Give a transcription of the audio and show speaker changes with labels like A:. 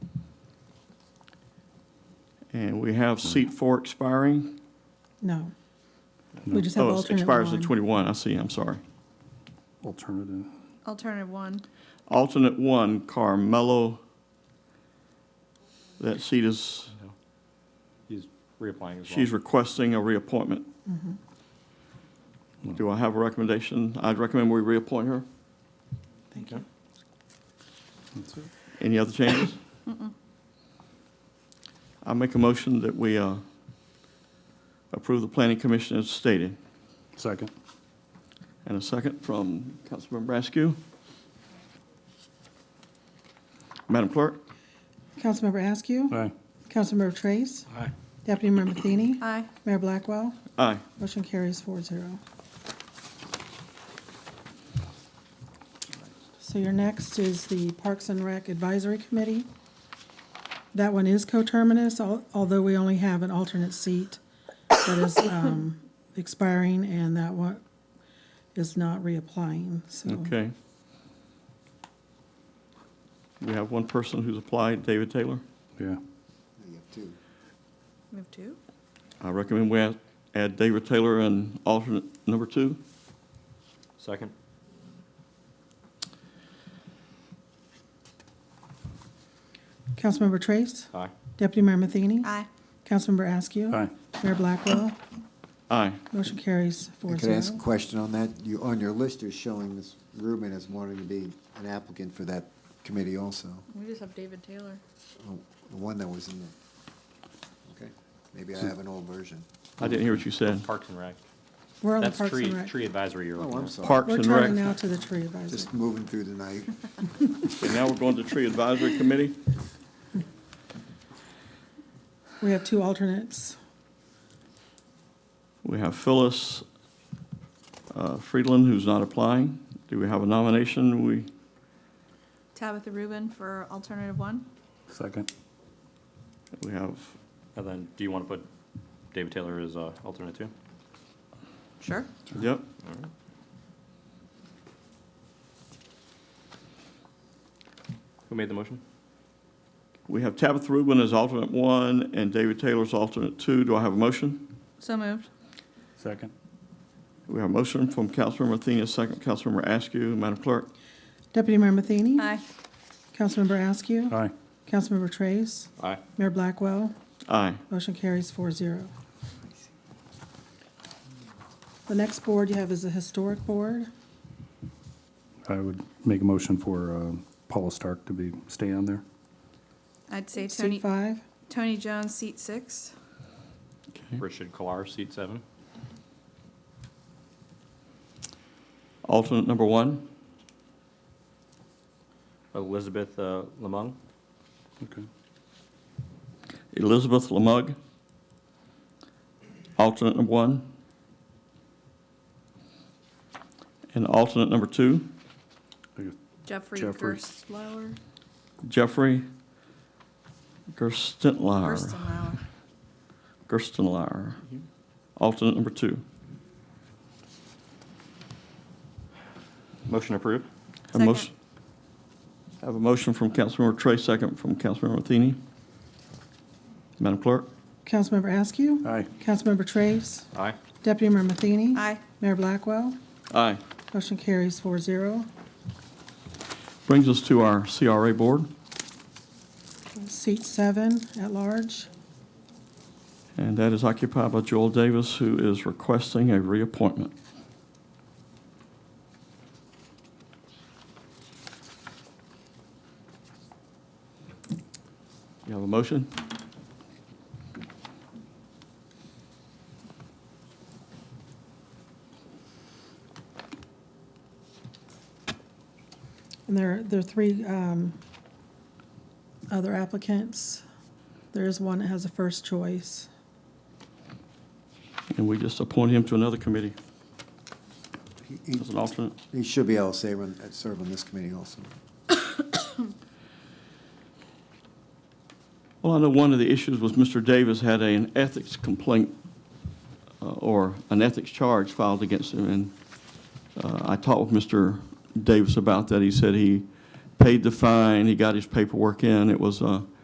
A: And we have seat four expiring.
B: No. We just have
A: Oh, it
B: alternate
A: Expires at
B: one.
A: 21, I see, I'm sorry.
C: Alternative.
D: Alternative one.
A: Alternate one, Carmelo. That seat is,
E: He's reapplying as well.
A: she's requesting a reappointment. Do I have a recommendation? I'd recommend we reappoint her.
B: Thank you.
C: That's it.
A: Any other changes? I make a motion that we uh, approve the planning commission as stated.
C: Second.
A: And a second from Councilmember Askew. Madam Clerk?
B: Councilmember Askew.
C: Aye.
B: Councilmember Trace.
C: Aye.
B: Deputy Mayor Matheny.
D: Aye.
B: Mayor Blackwell.
A: Aye.
B: Motion carries four zero. So your next is the Parks and Rec Advisory Committee. That one is coterminous, al- although we only have an alternate seat that is um, expiring, and that one is not reapplying, so.
A: Okay. We have one person who's applied, David Taylor.
C: Yeah.
F: You have two.
D: We have two.
A: I recommend we add- add David Taylor and alternate number two.
E: Second?
B: Councilmember Trace,
E: Aye.
B: Deputy Mayor Matheny,
D: Aye.
B: Councilmember Askew.
C: Aye.
B: Mayor Blackwell,
A: Aye.
B: motion carries four
F: Could I ask a
B: zero.
F: question on that? You, on your list, you're showing Ms. Rubin as wanting to be an applicant for that committee also,
D: We just have David Taylor.
F: Oh, the one that was in the, okay? Maybe I have an old version.
A: I didn't hear what you said.
E: Parks and Rec.
B: We're on the
E: That's
B: Parks
E: tree,
B: and Rec.
E: tree advisory you're
F: Oh,
E: looking
F: I'm
E: at.
F: sorry.
A: Parks
B: We're
A: and
B: turning
A: Rec.
B: now to the tree advisory.
F: Just moving through the night.
A: And now we're going to Tree Advisory Committee.
B: We have two alternates.
A: We have Phyllis uh, Friedland, who's not applying. Do we have a nomination? We,
D: Tabitha Rubin for alternative one.
C: Second.
A: we have,
E: And then, do you want to put David Taylor as uh, alternate two?
D: Sure.
A: yep.
E: Who made the motion?
A: We have Tabitha Rubin as alternate one and David Taylor as alternate two. Do I have a motion?
D: So moved.
C: Second.
A: We have a motion from Councilmember Athena, second Councilmember Askew. Madam Clerk?
B: Deputy Mayor Matheny.
D: Aye.
B: Councilmember Askew.
C: Aye.
B: Councilmember Trace.
E: Aye.
B: Mayor Blackwell.
A: Aye.
B: Motion carries four zero. The next board you have is the Historic Board.
C: I would make a motion for um, Paula Stark to be, stay on there.
D: I'd say
B: Seat
D: Tony,
B: five.
D: Tony Jones, seat six.
A: Okay.
E: Richard Kolar, seat seven.
A: Alternate number one?
E: Elizabeth uh, Lemong,
C: Okay.
A: Elizabeth Lamug. Alternate number one. And alternate number two,
D: Jeffrey
C: Jeffrey.
D: Gerstlauer.
A: Jeffrey Gerstenlauer.
D: Gerstenlauer.
A: Gerstenlauer. Alternate number two.
E: motion approved.
A: Have a motion-
D: Second.
A: Have a motion from Councilmember Trey, second from Councilmember Matheny. Madam Clerk?
B: Councilmember Askew.
C: Aye.
B: Councilmember Trace.
E: Aye.
B: Deputy Mayor Matheny.
D: Aye.
B: Mayor Blackwell.
A: Aye.
B: Motion carries four zero.
A: Brings us to our CRA Board,
B: Seat seven, at large.
A: and that is occupied by Joel Davis, who is requesting a reappointment. You have a motion?
B: And there, there are three um, other applicants. There is one that has a first choice.
A: And we just appoint him to another committee
F: He- he-
A: as an alternate.
F: He should be able to serve on, serve on this committee also.
A: Well, I know one of the issues was Mr. Davis had an ethics complaint uh, or an ethics charge filed against him, and uh, I talked with Mr. Davis about that. He said he paid the fine, he got his paperwork in. It was uh, a